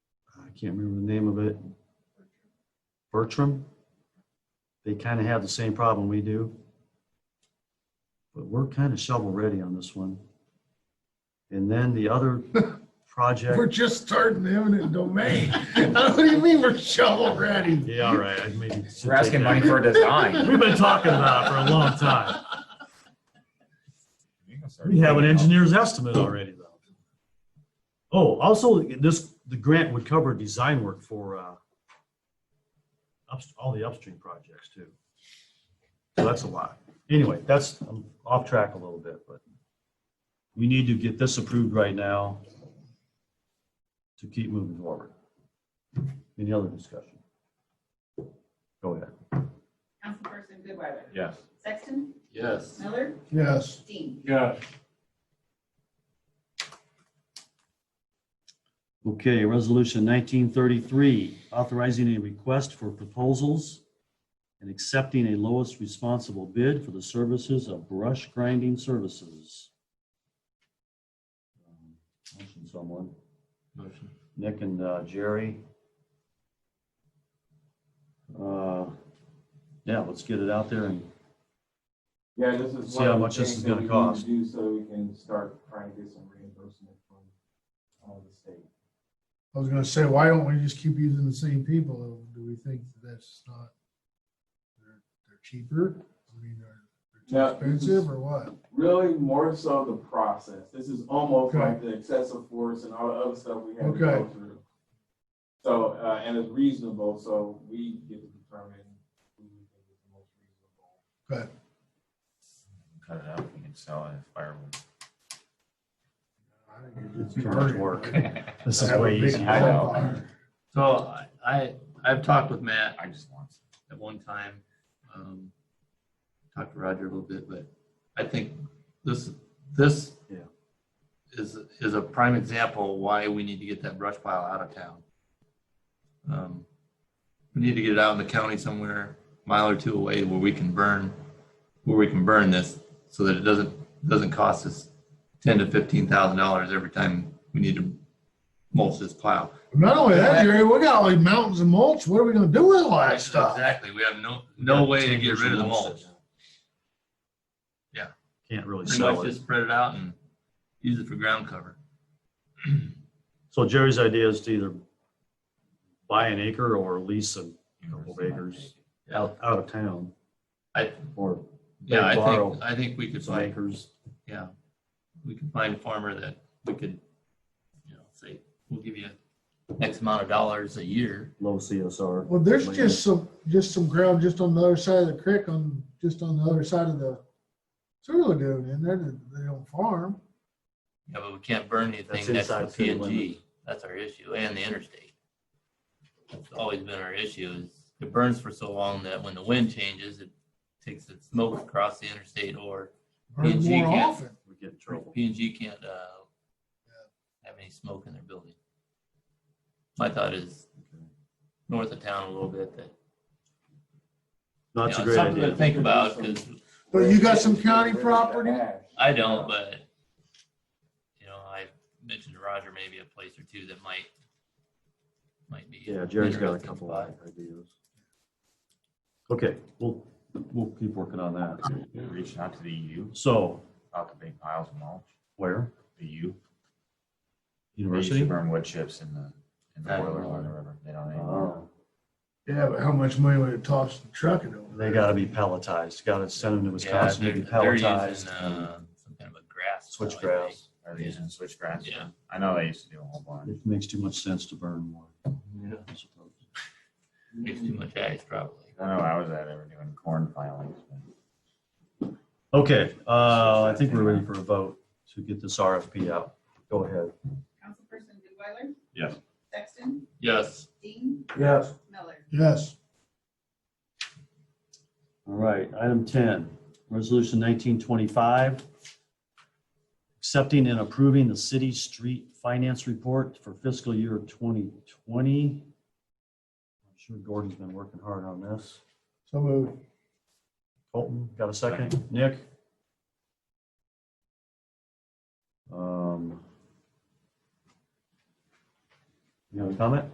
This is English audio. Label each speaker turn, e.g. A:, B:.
A: I can't remember the name of it. Bertram. They kind of have the same problem we do. But we're kind of shovel ready on this one. And then the other
B: We're
A: project.
B: just starting the eminent domain. What do you mean we're shovel ready?
A: Yeah, all right. I maybe should
C: We're
A: take
C: asking
A: that.
C: money for a design.
A: We've been talking about it for a long time.
D: You can start
A: We have an
D: digging up.
A: engineer's estimate already though. Oh, also this, the grant would cover design work for, uh, ups, all the upstream projects too. So that's a lot. Anyway, that's, I'm off track a little bit, but we need to get this approved right now to keep moving forward. Any other discussion? Go ahead.
E: Councilperson Goodweiler?
D: Yes.
E: Sexton?
F: Yes.
E: Miller?
B: Yes,
E: Dean?
F: Yes.
A: Okay, resolution nineteen thirty-three, authorizing a request for proposals and accepting a lowest responsible bid for the services of brush grinding services. Um, Motion someone,
F: Motion.
A: Nick and uh, Jerry. Uh, Yeah, let's get it out there and
G: Yeah, this is.
A: See
G: one of
A: how
G: the
A: much this
G: things
A: is
G: that
A: gonna
G: we need to
A: cost.
G: Do so we can start trying to get some reimbursement from uh, the state.
B: I was gonna say, why don't we just keep using the same people? Do we think that's not, they're, they're cheaper? I mean,
G: No,
B: they're, they're too
G: this is-
B: expensive or what?
G: Really more so the process. This is almost
B: Okay.
G: like the excessive force and all the other stuff we had to go
B: Okay.
G: through. So, uh, and it's reasonable, so we get to determine who we think is the most reasonable.
B: But
D: Cut it out, we can sell it as firewood.
B: I think it's
A: Too much work. this is
B: Have a
A: way
B: big
D: I
A: easier.
D: know.
B: bonfire.
F: So I- I, I've talked with Matt
D: I just want. some.
F: at one time, um, talked to Roger a little bit, but I think this, this
A: Yeah.
F: is, is a prime example why we need to get that brush pile out of town. Um, We need to get it out in the county somewhere, mile or two away where we can burn, where we can burn this so that it doesn't, doesn't cost us ten to fifteen thousand dollars every time we need to mulch this pile.
B: Not only that, Jerry, we got all these mountains and mulch. What are we gonna do with all that stuff?
F: Exactly, we have no, no way to get rid of the mulch.
A: Can't really
F: Pretty
A: sell
F: much
A: it.
F: just spread it out and use it for ground cover.
A: So Jerry's idea is to either buy an acre or lease a couple of acres out, out of town.
F: I-
A: Or
F: Yeah, I
A: borrow
F: think, I think we could
A: some
F: find,
A: acres.
F: yeah, we could find a farmer that we could, you know, say, we'll give you X amount of dollars a year.
A: low CSR.
B: Well, there's just some, just some ground just on the other side of the creek, on, just on the other side of the sewer lagoon, and they're, they don't farm.
F: Yeah, but we can't burn
A: That's
F: anything next to
A: inside
F: the
A: city
F: PNG.
A: limits.
F: That's our issue, and the interstate. That's always been our issue, is it burns for so long that when the wind changes, it takes its smoke across the interstate or
B: Burn
F: PNG
B: more
F: can't.
B: often.
A: We get in trouble.
F: P and G can't, uh, have any smoke in their building. My thought is north of town a little bit that.
A: No, That's a
F: you know,
A: great
F: something to
A: idea.
F: Think about, because
B: But you got some
G: Where it's
B: county
G: rid of the
B: property?
G: ash.
F: I don't, but, you know, I mentioned to Roger maybe a place or two that might, might be.
A: Yeah, Jerry's got a
F: interesting
A: couple
F: spot.
A: of ideas. Okay, we'll, we'll keep working on that.
D: Reaching out to the E EU
A: So,
D: about the big piles of mulch,
A: where?
D: the EU. They used to
A: University?
D: burn wood chips in the, in the
F: I don't
D: boiler
F: know.
D: or whatever. They don't anymore.
A: Oh,
B: Yeah, but how much money would it cost to truck it over?
A: They gotta be pelletized. Gotta send them to
F: Yeah,
A: Wisconsin
F: they're,
A: to be
F: they're using,
A: pelletized.
F: uh, some kind of a grass. now, I think.
A: Switchgrass.
D: Are they using switchgrass?
F: Yeah.
D: I know they used to do a whole bunch.
A: It makes too much sense to burn wood. I suppose.
F: Makes too much ice probably.
D: I know I was at, they were doing corn filings. but-
A: Okay, uh, I think we're ready for a vote to get this RFP out. Go ahead.
E: Councilperson Goodweiler?
D: Yes.
E: Sexton?
F: Yes.
E: Dean?
B: Yes.
E: Miller?
B: Yes.
A: All right, item ten, resolution nineteen twenty-five. Accepting and approving the city street finance report for fiscal year twenty twenty. I'm sure Gordon's been working hard on this.
B: So moved.
A: Colton, got a second? Nick? Um. You have a comment?